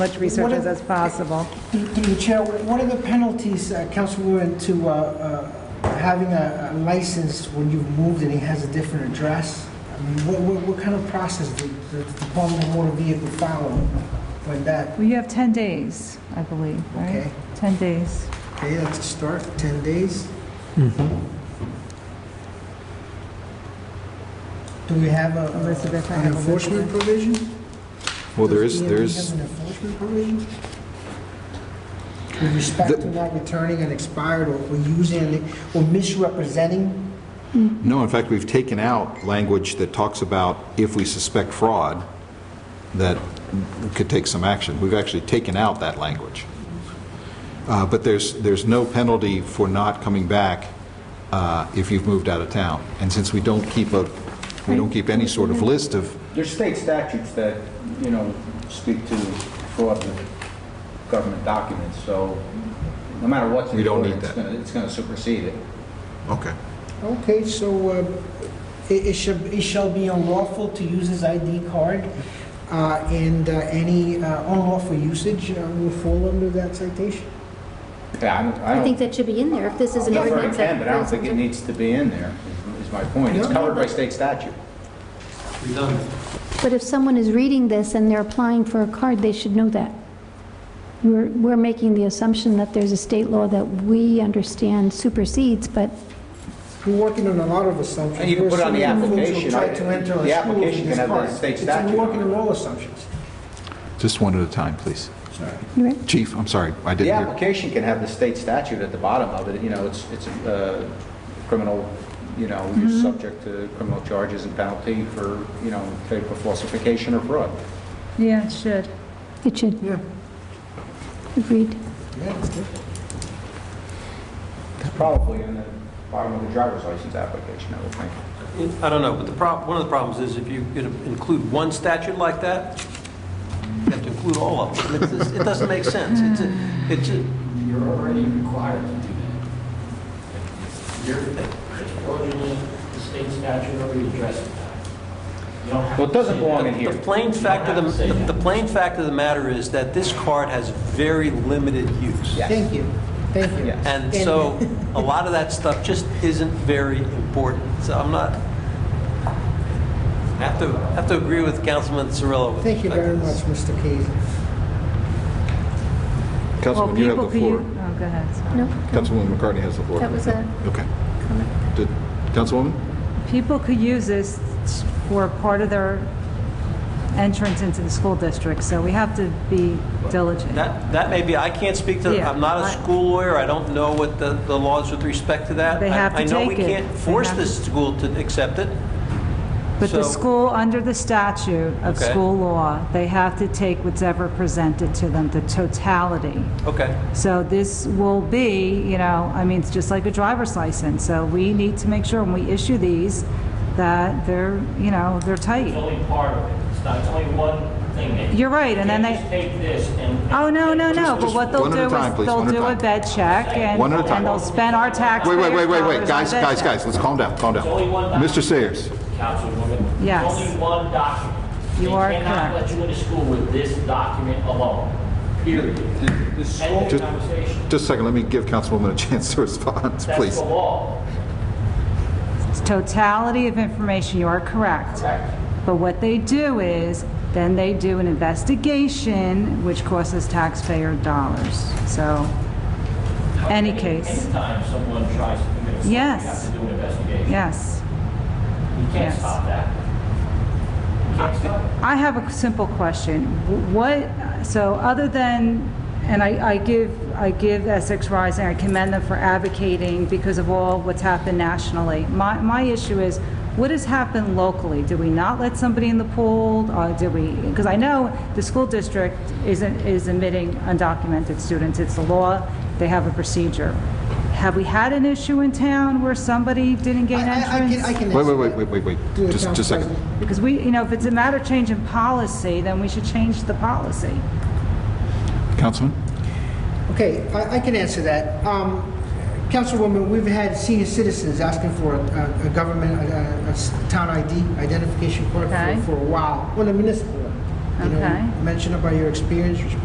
much research What as if- as possible. Through the chair, what are the penalties, uh, Councilwoman, to uh, uh, having a a license when you've moved and it has a different address? I mean, what- what what kind of process do do the Department of Motor Vehicle follow when that? Well, you have 10 days, I believe, right? Okay. 10 days. Okay, that's a start, 10 days. Do we have a- Elizabeth, I a- an have enforcement Elizabeth. provision? Well, there Does is, the there DMV is, have an enforcement provision? With respect to not returning an expired or or using or misrepresenting? no, in fact, we've taken out language that talks about if we suspect fraud, that we could take some action. We've actually taken out that language. Uh, But there's, there's no penalty for not coming back uh, if you've moved out of town. And since we don't keep a, we don't keep any sort of list of, There's state statutes that, you know, speak to fraud with government documents, so no matter what's We in don't order, need it's that. gonna, it's gonna supersede it. okay. Okay, so uh, it it shall, it shall be unlawful to use his ID card, uh, and uh, any uh, unlawful usage uh, will fall under that citation. Yeah, I don't, I I don't, think that should be in there, if this is an that's where it ordinance. that can, but I don't think it presents needs to be in there, is is my point. It's Yeah. covered by state statute. redundant. it. But if someone is reading this and they're applying for a card, they should know that. We're, we're making the assumption that there's a state law that we understand supersedes, but We're working on a lot of assumptions. And you can We're put it on the assuming folks will application, try right? to enter a The school with application his can have card. the state It's a statute on working it. on all assumptions. Just one at a time, please. you're right. Chief, I'm sorry, I The didn't hear. application can have the state statute at the bottom of it, you know, it's, it's uh, criminal, you know, you're Mm-hmm. subject to criminal charges and penalty for, you know, for falsification or fraud. Yeah, it should. it should. Yeah. Agreed. Yeah, that's good. It's probably in the bottom of the driver's license application, I would think. I don't know, but the prob, one of the problems is if you could include one statute like that, you have to include all of them. It's just- It doesn't make sense. It's, a- it's, a- You're already required to do that. You're, it's originally, the state statute already addresses that. You don't have Well, it to doesn't say belong that. in here. the plain fact of the, the plain fact of the matter is that this card has very limited use. Yes. Thank you, thank you. Yes. And so, a lot of that stuff just isn't very important. So I'm not, I have to, I have to agree with Councilman Cirillo. with Thank you respect to very this. much, Mr. Casey. Councilman, you have the floor. Well, people could, u- oh, go ahead, sorry. No, Councilwoman McCartney has the floor. that was a Okay. comment. Did- Councilwoman? People could use this for part of their entrance into the school district, so we have to be diligent. That, that may be, I can't speak to, Yeah, I'm not a I- school lawyer, I don't know what the, the laws with respect to that. They have to I- I know we take it. can't They force have the to- school to accept it. But the So- school, under the statute of Okay. school law, they have to take whatever presented to them, the totality. Okay, So this will be, you know, I mean, it's just like a driver's license, so we need to make sure when we issue these that they're, you know, they're It's tight. only part of it. It's not, it's only one thing. that- You're right, and then You can't they- just take this and. Oh, no, no, no, but what they'll one at a do time, is please, they'll one at a do a time. bed check and One at a time. and they'll spend our taxpayers' Wait, wait, wait, wait, wait, dollars on guys, bed checks. guys, guys, let's calm down, calm down. There's only one document. Mr. Sayers, Councilwoman. there's Yes. Only one document. You are They cannot correct. let you into school with this document alone, period. End of Just- conversation. just a second, let me give Councilwoman a chance to respond, That's please. the law. It's Totality of information, you are correct. Correct. But what they do is, then they do an investigation, which costs taxpayer dollars. So, any case, Anytime someone tries to commit a crime, you Yes. have to do an investigation. yes. You can't Yes. stop that. You can't stop it. I have a simple question. Wh- What, so other than, and I, I give, I give Essex Rising, I commend them for advocating because of all what's happened nationally. My, my issue is, what has happened locally? Do we not let somebody in the pool? Or do we, because I know the school district isn't, is admitting undocumented students. It's the law. They have a procedure. Have we had an issue in town where somebody didn't I gain I- I entrance? can, I can. Wait, wait, wait, answer wait, that. wait, wait, Through the just just a council second. president. Because we, you know, if it's a matter of changing policy, then we should change the policy. Councilman? Okay, I I can answer that. Um, Councilwoman, we've had senior citizens asking for a- a a government, a- a- a s- town ID, identification card Okay. for- for a while, well, a municipal one. You know, Okay. you Mentioned about your experience,